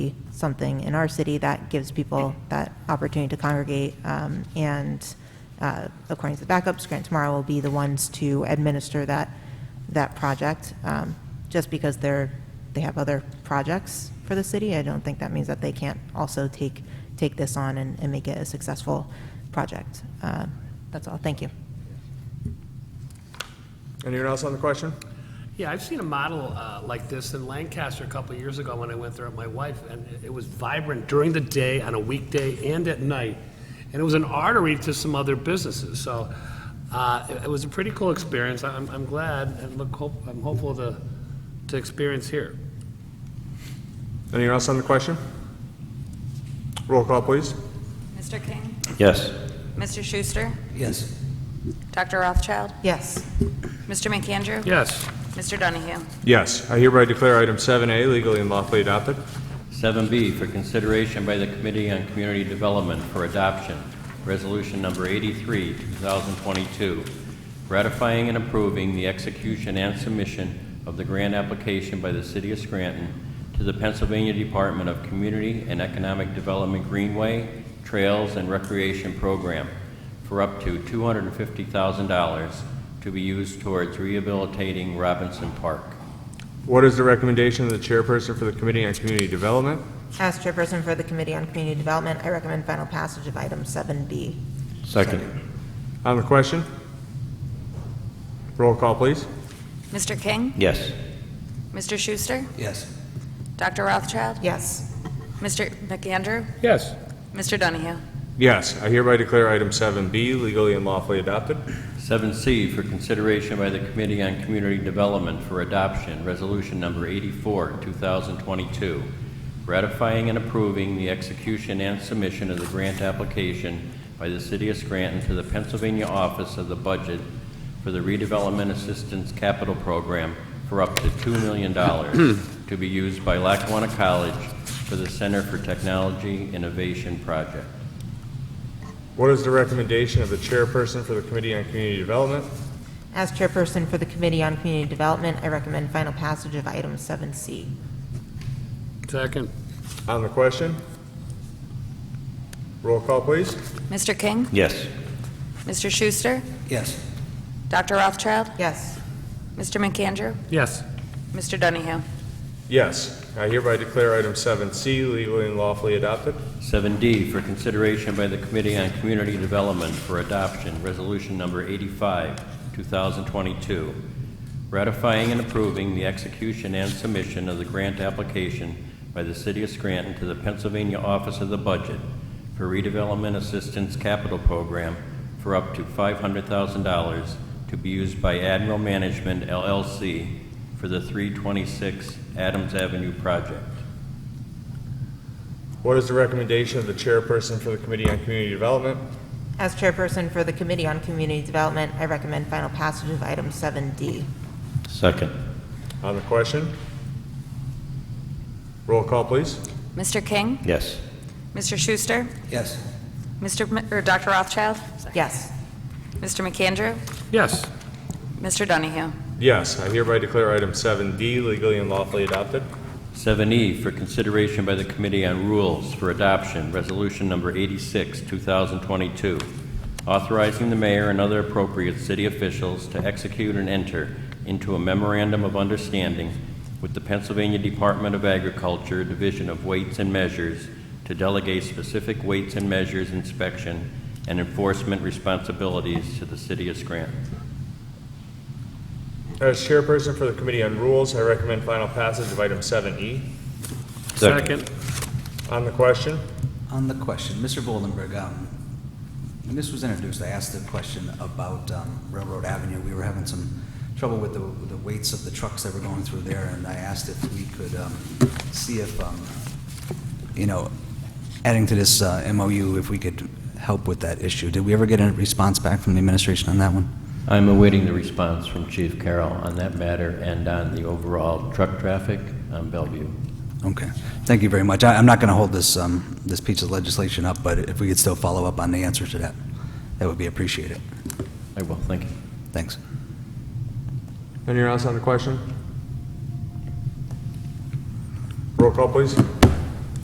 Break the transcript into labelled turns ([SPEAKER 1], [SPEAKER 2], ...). [SPEAKER 1] something in our city that gives people that opportunity to congregate. Um, And uh, according to the backups, Grant Tomorrow will be the ones to administer that, that project. Um, Just because they're, they have other projects for the city, I don't think that means that they can't also take, take this on and, and make it a successful project. Um, That's all, thank you.
[SPEAKER 2] Anyone else on the question?
[SPEAKER 3] Yeah, I've seen a model uh, like this in Lancaster a couple of years ago when I went there with my wife, and it- it was vibrant during the day, on a weekday, and at night. And it was an artery to some other businesses, so uh, it it was a pretty cool experience. I'm I'm glad, and look, hope- I'm hopeful to to experience here.
[SPEAKER 2] Anyone else on the question? Roll call, please.
[SPEAKER 4] Mr. King?
[SPEAKER 5] Yes.
[SPEAKER 4] Mr. Schuster?
[SPEAKER 5] Yes.
[SPEAKER 4] Dr. Rothschild?
[SPEAKER 1] Yes.
[SPEAKER 4] Mr. McAndrew?
[SPEAKER 3] Yes.
[SPEAKER 4] Mr. Donahue?
[SPEAKER 2] Yes, I hereby declare item 7A legally and lawfully adopted.
[SPEAKER 5] 7B for consideration by the Committee on Community Development for Adoption, Resolution Number 83, 2022, ratifying and approving the execution and submission of the grant application by the City of Scranton to the Pennsylvania Department of Community and Economic Development Greenway, Trails, and Recreation Program for up to $250,000 to be used towards rehabilitating Robinson Park.
[SPEAKER 2] What is the recommendation of the chairperson for the Committee on Community Development?
[SPEAKER 1] As chairperson for the Committee on Community Development, I recommend final passage of item 7B.
[SPEAKER 5] Second.
[SPEAKER 2] On the question? Roll call, please.
[SPEAKER 4] Mr. King?
[SPEAKER 5] Yes.
[SPEAKER 4] Mr. Schuster?
[SPEAKER 5] Yes.
[SPEAKER 4] Dr. Rothschild?
[SPEAKER 1] Yes.
[SPEAKER 4] Mr. McAndrew?
[SPEAKER 3] Yes.
[SPEAKER 4] Mr. Donahue?
[SPEAKER 2] Yes, I hereby declare item 7B legally and lawfully adopted.
[SPEAKER 5] 7C for consideration by the Committee on Community Development for Adoption, Resolution Number 84, 2022, ratifying and approving the execution and submission of the grant application by the City of Scranton to the Pennsylvania Office of the Budget for the Redevelopment Assistance Capital Program for up to $2 million to be used by Lackawanna College for the Center for Technology Innovation Project.
[SPEAKER 2] What is the recommendation of the chairperson for the Committee on Community Development?
[SPEAKER 1] As chairperson for the Committee on Community Development, I recommend final passage of item 7C.
[SPEAKER 3] Second.
[SPEAKER 2] On the question? Roll call, please.
[SPEAKER 4] Mr. King?
[SPEAKER 5] Yes.
[SPEAKER 4] Mr. Schuster?
[SPEAKER 5] Yes.
[SPEAKER 4] Dr. Rothschild?
[SPEAKER 1] Yes.
[SPEAKER 4] Mr. McAndrew?
[SPEAKER 3] Yes.
[SPEAKER 4] Mr. Donahue?
[SPEAKER 2] Yes, I hereby declare item 7C legally and lawfully adopted.
[SPEAKER 5] 7D for consideration by the Committee on Community Development for Adoption, Resolution Number 85, 2022, ratifying and approving the execution and submission of the grant application by the City of Scranton to the Pennsylvania Office of the Budget for Redevelopment Assistance Capital Program for up to $500,000 to be used by Admiral Management LLC for the 326 Adams Avenue project.
[SPEAKER 2] What is the recommendation of the chairperson for the Committee on Community Development?
[SPEAKER 1] As chairperson for the Committee on Community Development, I recommend final passage of item 7D.
[SPEAKER 5] Second.
[SPEAKER 2] On the question? Roll call, please.
[SPEAKER 4] Mr. King?
[SPEAKER 5] Yes.
[SPEAKER 4] Mr. Schuster?
[SPEAKER 5] Yes.
[SPEAKER 4] Mr. M- or Dr. Rothschild? Sorry.
[SPEAKER 1] Yes.
[SPEAKER 4] Mr. McAndrew?
[SPEAKER 3] Yes.
[SPEAKER 4] Mr. Donahue?
[SPEAKER 2] Yes, I hereby declare item 7D legally and lawfully adopted.
[SPEAKER 5] 7E E for consideration by the Committee on Rules for Adoption, Resolution Number 86, 2022, authorizing the mayor and other appropriate city officials to execute and enter into a memorandum of understanding with the Pennsylvania Department of Agriculture, Division of Weights and Measures, to delegate specific weights and measures inspection and enforcement responsibilities to the city of Scranton.
[SPEAKER 2] As chairperson for the Committee on Rules, I recommend final passage of item 7E.
[SPEAKER 3] Second.
[SPEAKER 2] On the question?
[SPEAKER 6] On the question, Mr. Boldenberg, um, when this was introduced, I asked a question about um, Railroad Avenue. We were having some trouble with the, with the weights of the trucks that were going through there, and I asked if we could um, see if, um, you know, adding to this uh, MOU, if we could help with that issue. Did we ever get a response back from the administration on that one?
[SPEAKER 5] I'm awaiting the response from Chief Carroll on that matter and on the overall truck traffic on Bellevue.
[SPEAKER 6] Okay, thank you very much. I- I'm not going to hold this, um, this piece of legislation up, but if we could still follow up on the answer to that, that would be appreciated.
[SPEAKER 5] I will, thank you.
[SPEAKER 6] Thanks.
[SPEAKER 2] Anyone else on the question? Roll call, please.